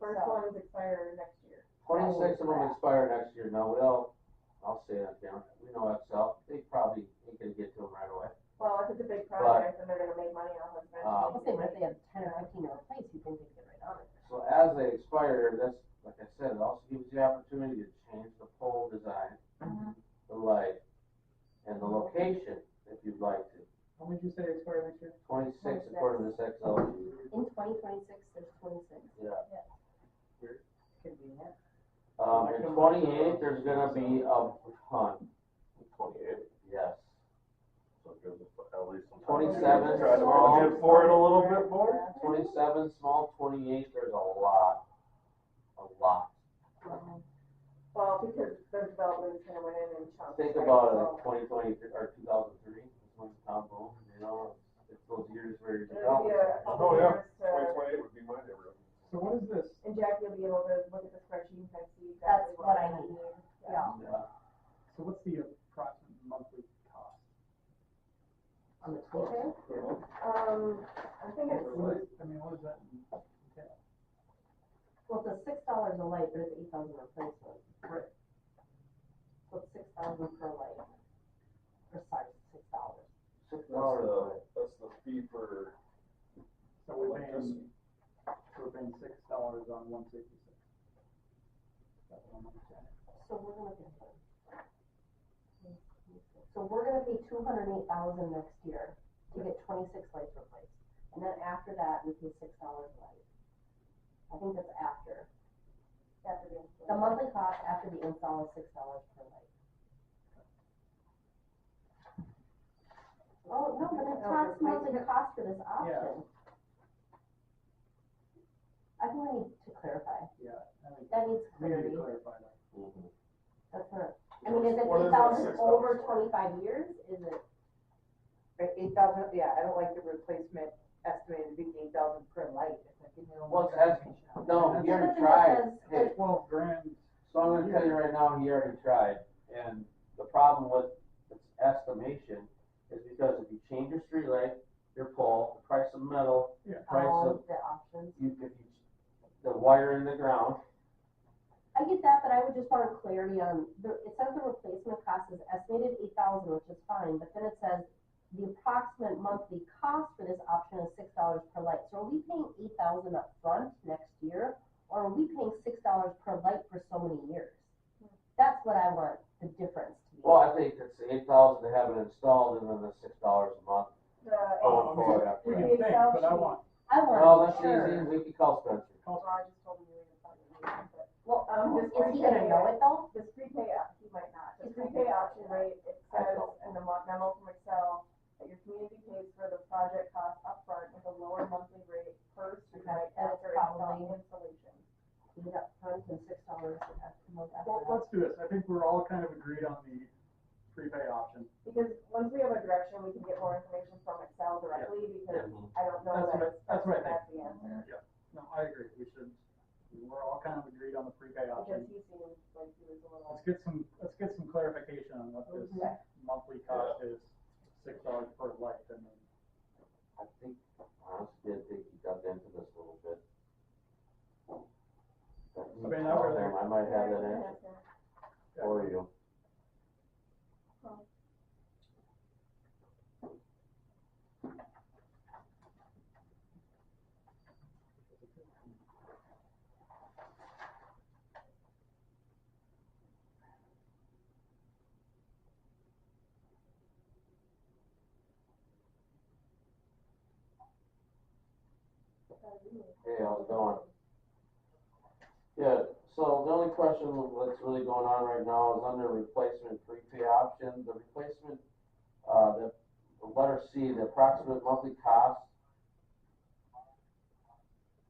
first So- ones expire next year. Twenty-six of them crap. expire next year, now, well, I'll say that, down. we know Excel, they probably ain't gonna get to them right away. Well, if it's a big project and they're gonna make money off of it. Uh, I'll say, what if they have ten or fifteen to replace, you think they can get right on it? So as they expire, that's, like I said, it also gives you the opportunity to change the pole design, Mhm. the light, and the location, if you'd like to. How would you say expire next year? Twenty-six according to this Excel sheet, In twenty twenty-six, there's twenty-six. yeah. Convenient. Um, in twenty-eight, there's gonna be a ton, Twenty-eight, yes. so it gives us at least some. time to 27 Try to small. budget for it a little bit more. Uh, Twenty-seven, small, twenty-eight, there's a lot, a lot. Well, because the development's gonna went in and chunks. Think right? about it, So- like twenty twenty, or two thousand three, when Tom Boone, you know, it's those years where you're It'll be a couple Oh, yeah. years Twenty to, twenty-eight would be my neighborhood. So what is this? and Jack, you'll be able to look at the spreadsheet and kind of see That's exactly what I need, yeah, developing. So what's the approximate monthly cost? on the twenty-fifth. Um, I think it's, What is, I mean, what is that? entail? Well, it's a six dollars a light, but it's eight thousand replacement. Right. So it's six thousand per light. Or sorry, six dollars. Six That's dollars, the, that's the fee for So we're paying, electricity. we're paying six dollars on one sixty-six. That's what I'm understanding. So we're gonna pay. So we're gonna pay two hundred and eight thousand next year to get twenty-six lights replaced. And then after that, we pay six dollars a light. I think that's after. after the. The monthly cost after the install is six dollars per light. Oh, no, but that's not supposed to cost for this option. I think we need to clarify. Yeah, I mean, That needs we clarity. need to clarify that. Mm-hmm. That's not, I mean, is it What eight is thousand that $6 over for? twenty-five years? Is it? eight thousand, yeah, I don't like the replacement estimated to be eight thousand per light, it's like, you know. Well, it's as- um, no, he already Something tried, that says, hey, like, Twelve grand. So I'm gonna tell you right now, he already tried, and the problem with its estimation is because if you change your street light, your pole, the price of metal, Yeah. price all of, of the options. you, if you, the wire in the ground, I get that, but I would just want clarity on, the- it says the replacement cost is estimated eight thousand, which is fine, but then it says the approximate monthly cost for this option is six dollars per light. So are we paying eight thousand upfront next year, or are we paying six dollars per light for so many years? That's what I want, the difference to be. well, I think it's eight thousand to have it installed, and then the six dollars a month The going Oh, forward after We that. can think, but I want, I Well, want, that's sure. easy, we can call Spencer. Well, I just told him you were gonna talk to me, but Well, Um, is this one he gonna thing- know it though? this prepay, op- he might not, the prepay option rate, it I says don't. in the mo- memo from Excel that your community pays for the project cost upfront with a lower monthly rate per Okay, street light that's after install- probably- installation. Eight upfront and six dollars a month after well, that. let's do this, I think we're all kind of agreed on the prepay option. Because once we have a direction, we can get more information from Excel directly, because I don't know That's what that, I- that's what I that's the answer. No, I agree, we should, we're all kind of agreed on the prepay Because option. he seemed like he was a little, Let's get some, let's get some clarification on what this Mhm. monthly cost is, six dollars per light, and then I think, honestly, I think he dug into this a little bit. I mean, I would- I might have that answer for you. Hey, how's it going? Yeah, so the only question that's really going on right now is under replacement prepay option, the replacement, uh, the, the letter C, the approximate monthly cost.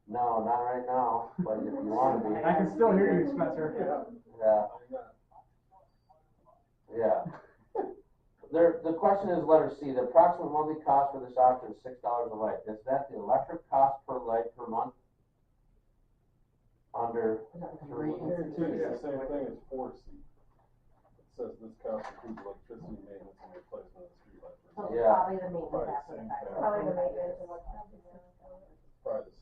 No, not right now, but if you wanna be, uh, I can still hear you, Spencer. yeah, Yeah. yeah. There, the question is letter C, the approximate monthly cost for this option is six dollars a light, is that the electric cost per light per month? Under three, Here too, it's the same thing as four C. It says this cost includes electricity maintenance and replacement of streetlight. So Yeah. probably the maintenance Probably after the same fact. thing. probably the maintenance and what's happening. Probably the